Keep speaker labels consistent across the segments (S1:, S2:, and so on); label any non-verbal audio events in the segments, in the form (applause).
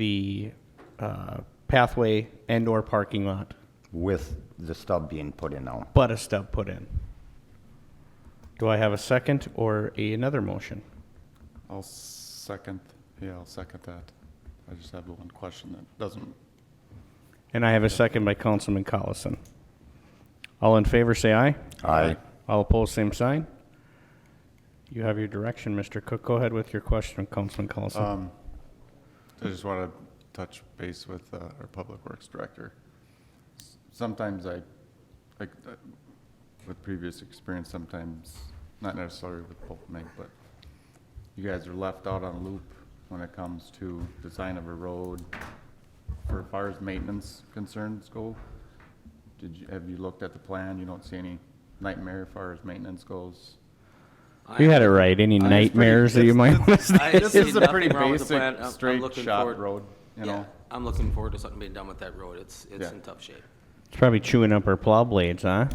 S1: the uh, pathway and/or parking lot,
S2: with the stub being put in now.
S1: but a stub put in. Do I have a second or a- another motion?
S3: I'll second, yeah, I'll second that. I just have the one question that doesn't,
S1: And I have a second by Councilman Collison. All in favor, say aye.
S2: Aye.
S1: All opposed, same sign. You have your direction, Mr. Cook. Go ahead with your question, Councilman Collison.
S3: um, I just want to touch base with uh, our Public Works Director. S- Sometimes I, like, uh, with previous experience, sometimes, not necessarily with both Meg, but you guys are left out on loop when it comes to design of a road for as far as maintenance concerns go. Did you, have you looked at the plan? You don't see any nightmare as far as maintenance goes?
S1: You had it right. Any nightmares that you might want to (laughs)
S4: I-
S3: This
S4: see
S3: is a
S4: nothing
S3: pretty
S4: wrong with the plan.
S3: basic,
S4: I'm- I'm
S3: straight
S4: looking
S3: shot
S4: forward-
S3: road, you
S4: yeah,
S3: know?
S4: I'm looking forward to something being done with that road. It's, it's
S3: Yeah.
S4: in tough shape.
S1: It's probably chewing up our plow blades, huh?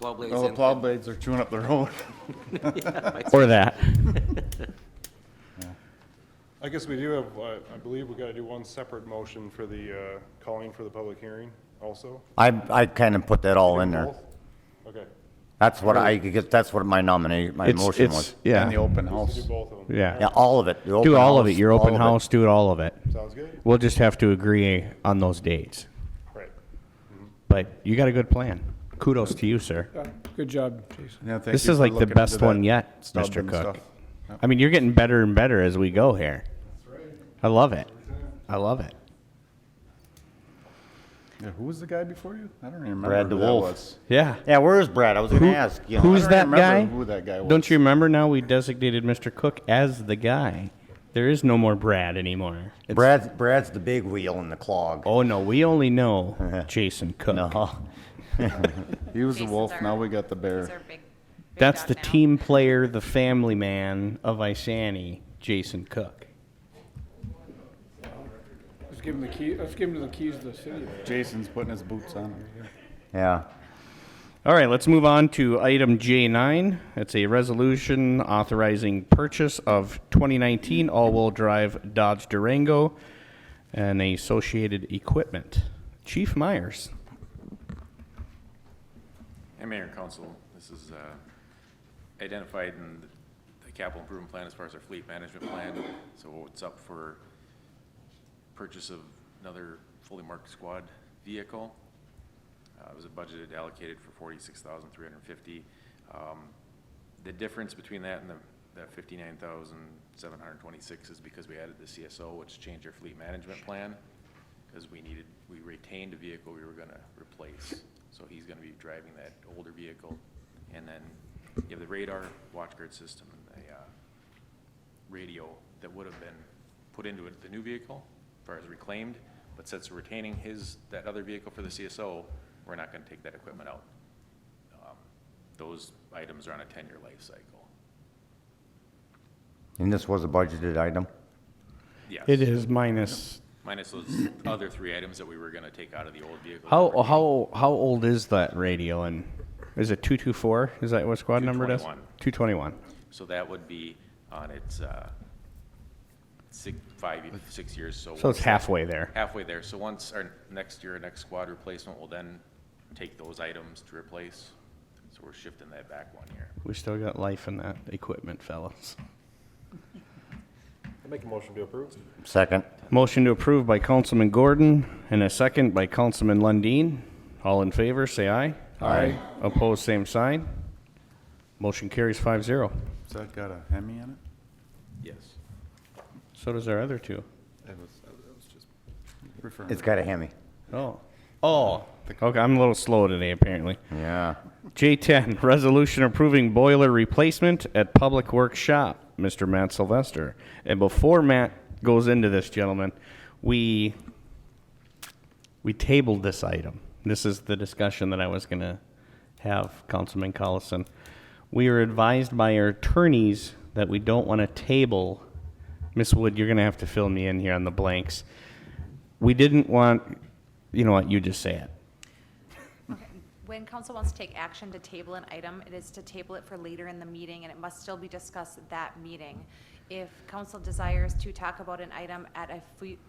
S4: Plow blades
S3: Well, the
S4: in-
S3: Oh, plow blades are chewing up the road. (laughs)
S1: Or that.
S5: I guess we do have, uh, I I believe we got to do one separate motion for the, uh, calling for the public hearing also.
S2: I, I kind of put that all in there.
S5: Both? Okay.
S2: That's what I, because that's what my nominee, my
S1: It's,
S2: motion was.
S1: it's,
S3: And the
S1: yeah,
S3: open
S5: Let's do
S3: house.
S5: both of them.
S2: Yeah,
S1: yeah.
S2: all of it. the
S1: Do
S2: open
S1: all of
S2: house,
S1: it, your
S2: all
S1: open
S2: of it.
S1: house, do it all of it.
S5: Sounds good?
S1: We'll just have to agree on those dates.
S5: Right.
S1: But you got a good plan. Kudos to you, sir.
S6: Good job, Jason.
S3: Yeah, thank
S1: This
S3: you
S1: is
S3: for
S1: like the
S3: looking
S1: best
S3: into
S1: one
S3: that
S1: yet,
S3: stub
S1: Mr.
S3: and
S1: Cook.
S3: stuff.
S1: I mean, you're getting better and better as we go here. I love it. I love it.
S3: Yeah, who was the guy before you? I don't even remember
S2: Brad
S3: who that
S2: DeWolf.
S3: was.
S1: Yeah.
S2: Yeah, where's Brad? I was gonna
S1: Who-
S2: ask, you know.
S1: who's
S3: I don't
S1: that guy?
S3: remember who that guy
S1: Don't
S3: was.
S1: you remember now we designated Mr. Cook as the guy? There is no more Brad anymore. It's-
S2: Brad's, Brad's the big wheel in the clog.
S1: Oh no, we only know Jason Cook.
S2: No,
S3: He was the
S7: Jason's
S3: wolf,
S7: our-
S3: now we got the
S7: He's our
S3: bear.
S7: big- big
S1: That's
S7: dog
S1: the
S7: now.
S1: team player, the family man of Isani, Jason Cook.
S6: Let's give him the key, let's give him the keys to the city.
S3: Jason's putting his boots on. over here.
S2: (laughs) yeah.
S1: All right, let's move on to item J9. It's a resolution authorizing purchase of 2019 all-wheel drive Dodge Durango and associated equipment. Chief Myers.
S8: Hey, Mayor and Council, this is uh, identified in the capital improvement plan as far as our fleet management plan. So it's up for purchase of another fully marked squad vehicle. Uh, It was budgeted allocated for forty-six thousand three hundred and fifty. Um, The difference between that and the, that fifty-nine thousand seven hundred and twenty-six is because we added the CSO, which changed our fleet management plan. Because we needed, we retained a vehicle we were gonna replace, so he's gonna be driving that older vehicle. And then you have the radar, watch guard system, and the, uh, radio that would have been put into it- the new vehicle, as far as reclaimed, but since we're retaining his, that other vehicle for the CSO, we're not gonna take that equipment out. Um, Those items are on a ten-year life cycle.
S2: And this was a budgeted item?
S8: Yes.
S1: It is minus.
S8: Minus those other three items that we were gonna take out of the old vehicle.
S1: How how how old is that radio? And is it 224? Is that what squad number it is? 221.
S8: So that would be on its, uh, six, five, ye- six years, so.
S1: So it's
S8: once that-
S1: halfway there.
S8: Halfway there, so once our next year, next squad replacement will then take those items to replace, so we're shifting that back one year.
S1: We still got life in that equipment, fellas.
S5: I'll make a motion to approve.
S2: Second,
S1: Motion to approve by Councilman Gordon and a second by Councilman Lundeen. All in favor, say aye.
S2: Aye.
S1: Opposed, same sign. Motion carries 5-0.
S3: Has that got a Hemi in it?
S8: Yes.
S1: So does our other two.
S3: It was, I was just referring.
S2: it's got a Hemi.
S1: Oh. Oh. Okay, I'm a little slow today, apparently.
S2: Yeah.
S1: J10, resolution approving boiler replacement at Public Works Shop, Mr. Matt Sylvester. And before Matt goes into this, gentlemen, we, we tabled this item. This is the discussion that I was going to have, Councilman Collison. We were advised by our attorneys that we don't want to table. Ms. Wood, you're going to have to fill me in here on the blanks. We didn't want, you know what, you just say it.
S7: Okay. When council wants to take action to table an item, it is to table it for later in the meeting, and it must still be discussed at that meeting. If council desires to talk about an item at a fu-